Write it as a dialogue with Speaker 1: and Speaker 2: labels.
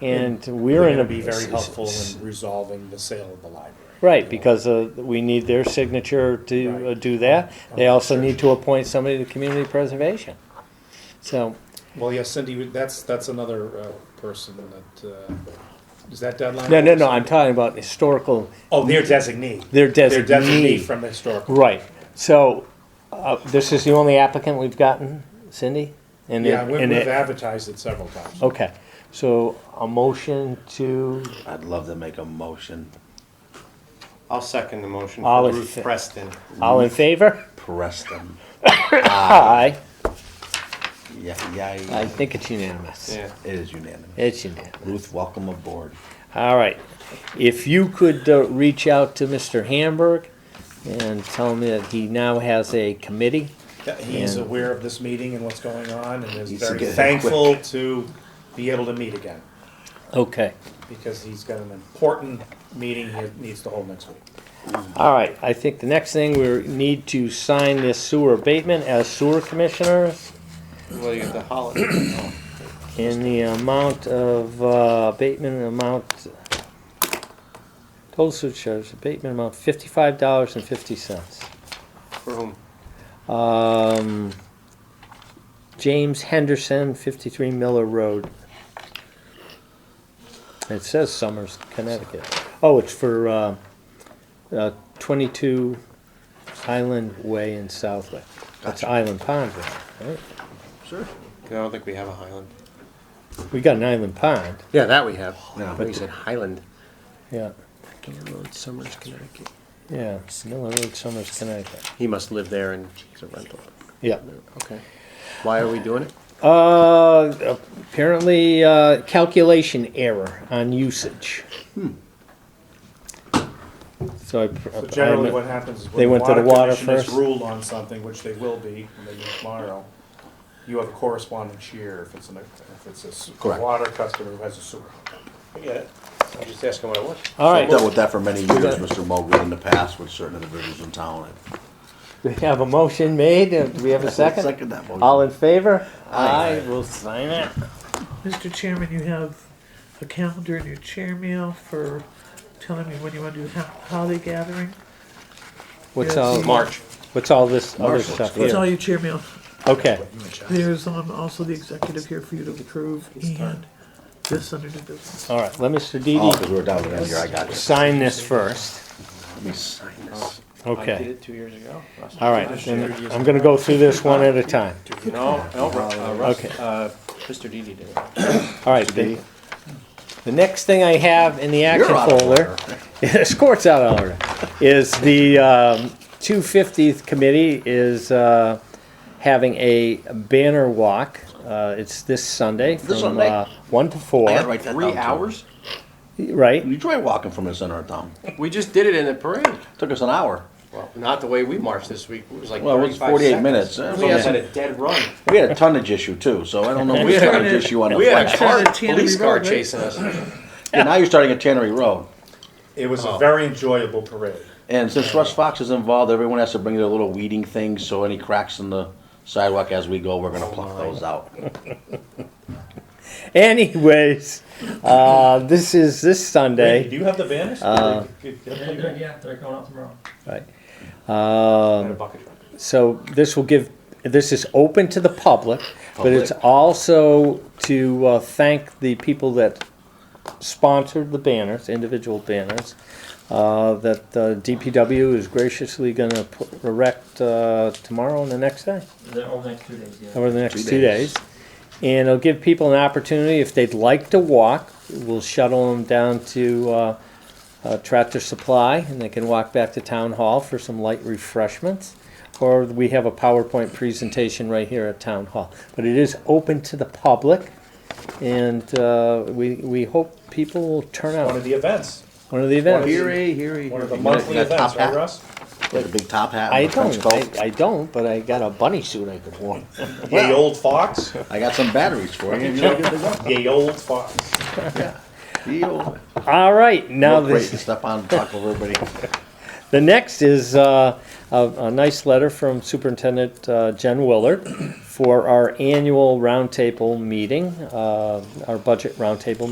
Speaker 1: and
Speaker 2: They're
Speaker 1: we're in
Speaker 2: gonna
Speaker 1: a.
Speaker 2: be very helpful in resolving the sale of the library.
Speaker 1: Right, because uh, we need their signature to uh,
Speaker 2: Right. Oh,
Speaker 1: do that. They also
Speaker 2: Sure.
Speaker 1: need to appoint somebody to community preservation. So,
Speaker 2: Well, yes, Cindy, that's, that's another uh, person that, uh, is that deadline?
Speaker 1: no, no, no, I'm talking about historical,
Speaker 2: Oh, their designee.
Speaker 1: their
Speaker 2: Their designee
Speaker 1: designee.
Speaker 2: from the historical.
Speaker 1: Right, so uh, this is the only applicant we've gotten, Cindy? And
Speaker 2: Yeah,
Speaker 1: it-
Speaker 2: we-
Speaker 1: and
Speaker 2: we've
Speaker 1: it-
Speaker 2: advertised it several times.
Speaker 1: Okay, so a motion to,
Speaker 3: I'd love to make a motion.
Speaker 4: I'll second the motion
Speaker 1: All
Speaker 4: for
Speaker 1: in
Speaker 4: Ruth
Speaker 1: fa-
Speaker 4: Preston.
Speaker 1: all in favor?
Speaker 3: Preston.
Speaker 1: Aye.
Speaker 3: Yeah, yeah, yeah.
Speaker 1: I think it's unanimous.
Speaker 4: Yeah.
Speaker 3: It is unanimous.
Speaker 1: It's unanimous.
Speaker 3: Ruth, welcome aboard.
Speaker 1: All right. If you could uh, reach out to Mr. Hamburg and tell him that he now has a committee.
Speaker 2: He's
Speaker 1: And-
Speaker 2: aware of this meeting and what's going on and is
Speaker 3: Needs to
Speaker 2: very
Speaker 3: get it
Speaker 2: thankful to be able to meet again
Speaker 1: Okay.
Speaker 2: because he's got an important meeting he needs to hold next week.
Speaker 1: All right. I think the next thing we need to sign this sewer abatement as sewer commissioners
Speaker 4: Well, you have the holiday. Oh,
Speaker 1: in the amount of uh, abatement amount. Total sewer charge abatement amount fifty-five dollars and fifty cents.
Speaker 4: For whom?
Speaker 1: Um, James Henderson, 53 Miller Road. It says Summers, Connecticut. Oh, it's for uh, uh, 22 Island Way in Southwick. That's Island Pond, right?
Speaker 3: Sure.
Speaker 4: 'Cause I don't think we have a Highland.
Speaker 1: We got an Island Pond,
Speaker 5: Yeah, that we have.
Speaker 3: Yeah.
Speaker 5: But you said Highland.
Speaker 1: yeah.
Speaker 5: Miller Road, Summers, Connecticut.
Speaker 1: Yeah, Miller Road, Summers, Connecticut.
Speaker 5: He must live there and it's a rental.
Speaker 1: Yeah.
Speaker 5: Okay. Why are we doing it?
Speaker 1: Uh, apparently, uh, calculation error on usage. So I.
Speaker 2: So generally what happens is
Speaker 1: They
Speaker 2: when
Speaker 1: went
Speaker 2: the
Speaker 1: to the
Speaker 2: water
Speaker 1: water
Speaker 2: commission is
Speaker 1: first.
Speaker 2: ruled on something, which they will be maybe tomorrow, you have a correspondence year if it's an, if it's a s-
Speaker 3: Correct.
Speaker 2: water customer who has a sewer.
Speaker 4: I get it. I'm just asking what it was.
Speaker 1: All
Speaker 3: I've
Speaker 1: right,
Speaker 3: dealt with that for many years, Mr. Mogul, in the past with certain individuals in town.
Speaker 1: we have a motion made, Uh, do we have a second?
Speaker 3: Second that motion.
Speaker 1: All in favor?
Speaker 3: Aye.
Speaker 1: we will sign it.
Speaker 6: Mr. Chairman, you have a calendar in your chair mail for telling me when you want to do ho- holiday gathering.
Speaker 1: What's
Speaker 6: Yes.
Speaker 1: all,
Speaker 4: March.
Speaker 1: what's all this other
Speaker 3: Marshall,
Speaker 1: stuff
Speaker 6: It's all
Speaker 1: here?
Speaker 6: your chair mail.
Speaker 1: Okay,
Speaker 6: There's um, also the executive here for you to approve and this under new business.
Speaker 1: all right, let Mr.
Speaker 3: Oh,
Speaker 1: Didi
Speaker 3: because we're down there, I got you.
Speaker 1: sign this first,
Speaker 3: Let me sign this.
Speaker 4: I did
Speaker 1: okay,
Speaker 4: it two years ago. Russ.
Speaker 1: all right, then I'm gonna go through this one at a time,
Speaker 4: No, no, Ru- uh, Russ,
Speaker 1: Okay.
Speaker 4: uh, Mr. Didi did it.
Speaker 1: all right. The the next thing I have in the action
Speaker 3: You're out of
Speaker 1: folder,
Speaker 3: order.
Speaker 1: this court's out of order, is the, um, two fiftieth committee is, uh, having a banner walk, uh, it's this Sunday from,
Speaker 3: Sunday?
Speaker 1: uh, one to four.
Speaker 3: I gotta write that down.
Speaker 4: Three
Speaker 3: too.
Speaker 4: hours?
Speaker 1: Right.
Speaker 3: You try walking from the center of town.
Speaker 4: We just did it in the parade.
Speaker 3: Took us an hour.
Speaker 4: Well, not the way we marched this week. It was like
Speaker 3: Well, it was
Speaker 4: 35
Speaker 3: 48
Speaker 4: seconds.
Speaker 3: minutes. It was
Speaker 4: We
Speaker 3: almost-
Speaker 4: had a dead run.
Speaker 3: We had a tonnage issue too, so I don't know
Speaker 4: We
Speaker 3: which
Speaker 4: had a-
Speaker 3: tonnage issue on the
Speaker 4: We had a
Speaker 3: flex.
Speaker 4: car,
Speaker 6: Trying to Tannery
Speaker 4: police car
Speaker 6: Road, right?
Speaker 4: chasing us.
Speaker 3: And now you're starting at Tannery Road.
Speaker 2: It was a
Speaker 4: Oh.
Speaker 2: very enjoyable parade.
Speaker 3: And since Russ Fox is involved, everyone has to bring their little weeding things, so any cracks in the sidewalk as we go, we're gonna pluck those out.
Speaker 1: Anyways, uh, this is this
Speaker 2: Randy,
Speaker 1: Sunday.
Speaker 2: Do you have the banners?
Speaker 7: Yeah, they're going out tomorrow.
Speaker 1: Right. Um,
Speaker 4: Bucket truck.
Speaker 1: so this will give. This is open to the public, but it's also to uh, thank the people that sponsored the banners, individual banners. Uh, that uh, DPW is graciously going to erect uh, tomorrow and the next day.
Speaker 7: They're over the next two days, yeah.
Speaker 1: over the next
Speaker 3: Two
Speaker 1: two days.
Speaker 3: days.
Speaker 1: And it'll give people an opportunity, if they'd like to walk, we'll shuttle them down to uh, uh, Tractor Supply, and they can walk back to Town Hall for some light refreshments. Or we have a PowerPoint presentation right here at Town Hall. But it is open to the public, and uh, we, we hope people will turn
Speaker 2: One of
Speaker 1: out.
Speaker 2: the events,
Speaker 1: One of the events.
Speaker 2: one of the monthly
Speaker 3: You got
Speaker 2: events,
Speaker 3: a top
Speaker 2: right
Speaker 3: hat?
Speaker 2: Russ?
Speaker 3: With a big top hat
Speaker 1: I
Speaker 3: and a trench
Speaker 1: don't, I
Speaker 3: coat.
Speaker 1: I don't, but I got a bunny suit I could wear.
Speaker 2: Yay old fox,
Speaker 3: I got some batteries for you. You're good to go.
Speaker 2: yay old fox.
Speaker 3: Deal.
Speaker 1: All right, now
Speaker 3: Real great
Speaker 1: this.
Speaker 3: to step on and talk over everybody.
Speaker 1: The next is uh, a, a nice letter from Superintendent uh, Jen Willard for our annual roundtable meeting, uh, our budget roundtable